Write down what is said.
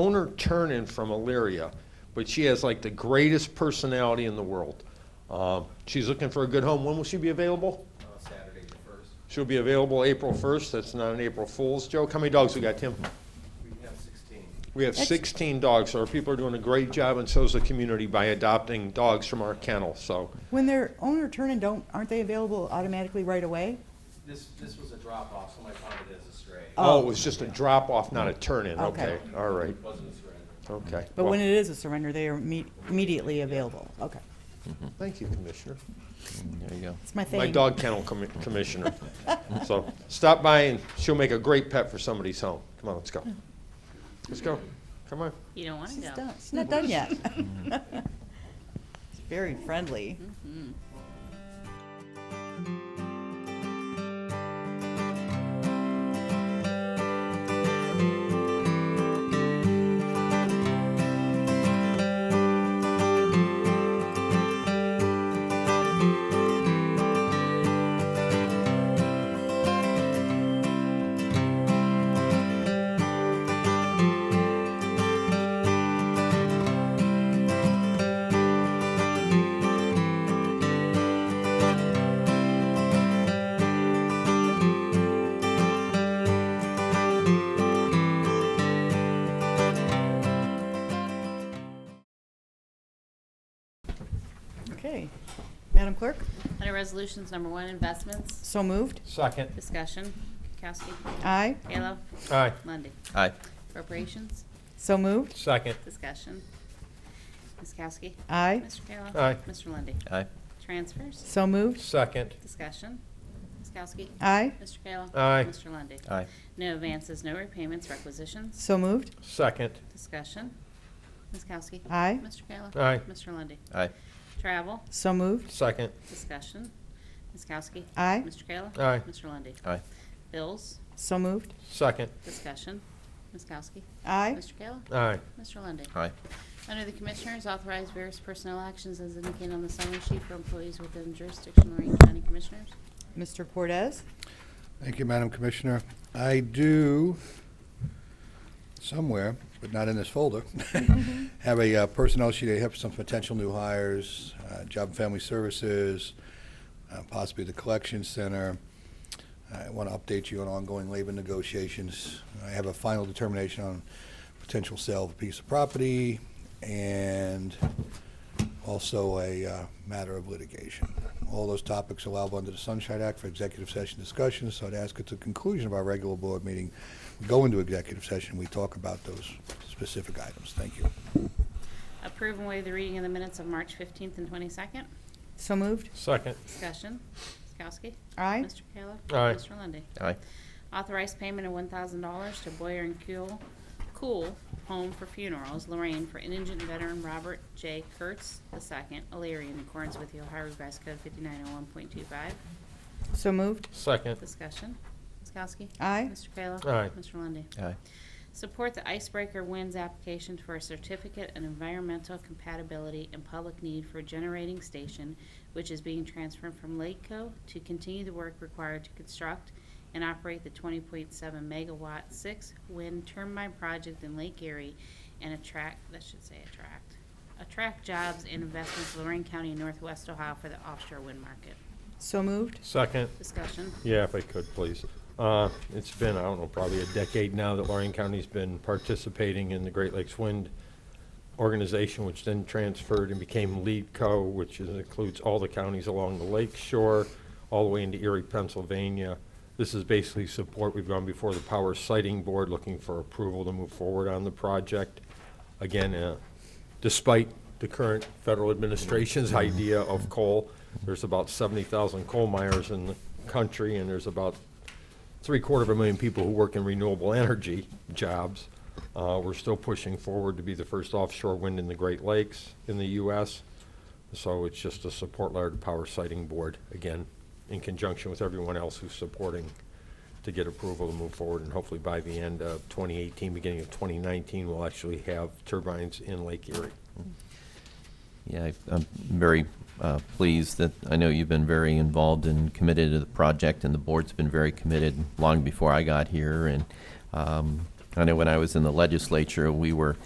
Owner Turnin from Elyria, but she has like the greatest personality in the world. Um, She's looking for a good home. When will she be available? uh, Saturday the first. She'll be available April 1st. That's not an April Fool's joke. How many dogs we got, Tim? We have sixteen. We have That's- 16 dogs, so our people are doing a great job, and so's the community by adopting dogs from our kennel, so. When they're owner turn and don't, aren't they available automatically right away? This, this was a drop off, somebody found it as a stray. It Oh, it was just a drop-off, not a turn-in. Okay. Okay, all right, Wasn't a surrender. okay. But Well, when it is a surrender, they are imme- immediately available. Okay, Thank you, Commissioner. There you go. it's my thing. My dog kennel commi- commissioner. So stop by, and she'll make a great pet for somebody's home. Come on, let's go. Let's go. Come on. You don't want to She's go. done. She's not done yet. Mm-hmm. It's very friendly. Okay, Madam Clerk, Under Resolutions Number One, Investments, so moved. Second. Discussion, Kukowski, Aye, Kayla, Aye. Lundy. Aye. Appropriations, so moved. Second. Discussion. Ms. Kowski, Aye, Mr. Kayla. Aye. Mr. Lundy. Aye. Transfers, so moved. Second. Discussion, Ms. Kowski, Aye, Mr. Kayla. Aye. Mr. Lundy. Aye. No advances, no repayments, requisitions, so moved. Second. Discussion, Ms. Kowski. Aye, Mr. Kayla. Aye. Mr. Lundy. Aye. Travel, so moved. Second. Discussion, Ms. Kowski. Aye, Mr. Kayla. Aye. Mr. Lundy. Aye. Bills, so moved. Second. Discussion, Ms. Kowski. Aye, Mr. Kayla. Aye. Mr. Lundey. Aye. Under the Commissioners, authorize various personnel actions as indicated on the summary sheet for employees within jurisdiction of Lorraine County Commissioners. Mr. Cortez, Thank you, Madam Commissioner. I do, somewhere, but not in this folder, have a uh, personnel sheet. I have some potential new hires, uh, Job and Family Services, uh, possibly the Collection Center. I want to update you on ongoing labor negotiations. I have a final determination on potential sale of a piece of property and also a uh, matter of litigation. All those topics allowable under the Sunshine Act for executive session discussions, so I'd ask at the conclusion of our regular board meeting, we go into executive session, we talk about those specific items. Thank you. Approve and waive the reading of the minutes of March 15th and 22nd. so moved. Second. Discussion, Ms. Kowski. Aye, Mr. Kayla. Aye. Mr. Lundey. Aye. Authorize payment of $1,000 to Boyer and Kuhl, Cool Home for Funerals, Lorraine, for indigent veteran Robert J. Kurtz II, Alariah, in accordance with the Ohio Revised Code 5901.25. so moved. Second. Discussion. Ms. Kowski? Aye, Mr. Kayla? Aye. Mr. Lundy. Aye. Support the Icebreaker Winds application for a certificate in environmental compatibility and public need for a generating station, which is being transferred from Lakeco to continue the work required to construct and operate the 20.7 megawatt six wind turbine project in Lake Erie and attract, that should say attract, attract jobs and investments in Lorraine County and Northwest Ohio for the offshore wind market. so moved. Second. Discussion. Yeah, if I could, please. Uh, It's been, I don't know, probably a decade now that Lorraine County's been participating in the Great Lakes Wind Organization, which then transferred and became Lead Co., which is- includes all the counties along the lake shore, all the way into Erie, Pennsylvania. This is basically support. We've gone before the Power Sighting Board looking for approval to move forward on the project. Again, uh, despite the current federal administration's idea of coal, there's about 70,000 coal miners in the country, and there's about three-quarter of a million people who work in renewable energy jobs. Uh, We're still pushing forward to be the first offshore wind in the Great Lakes in the U.S. So it's just a support letter to Power Sighting Board, again, in conjunction with everyone else who's supporting to get approval to move forward, and hopefully by the end of 2018, beginning of 2019, we'll actually have turbines in Lake Erie. Yeah, I- I'm very uh, pleased that, I know you've been very involved and committed to the project, and the board's been very committed long before I got here, and um, I know when I was in the legislature, we were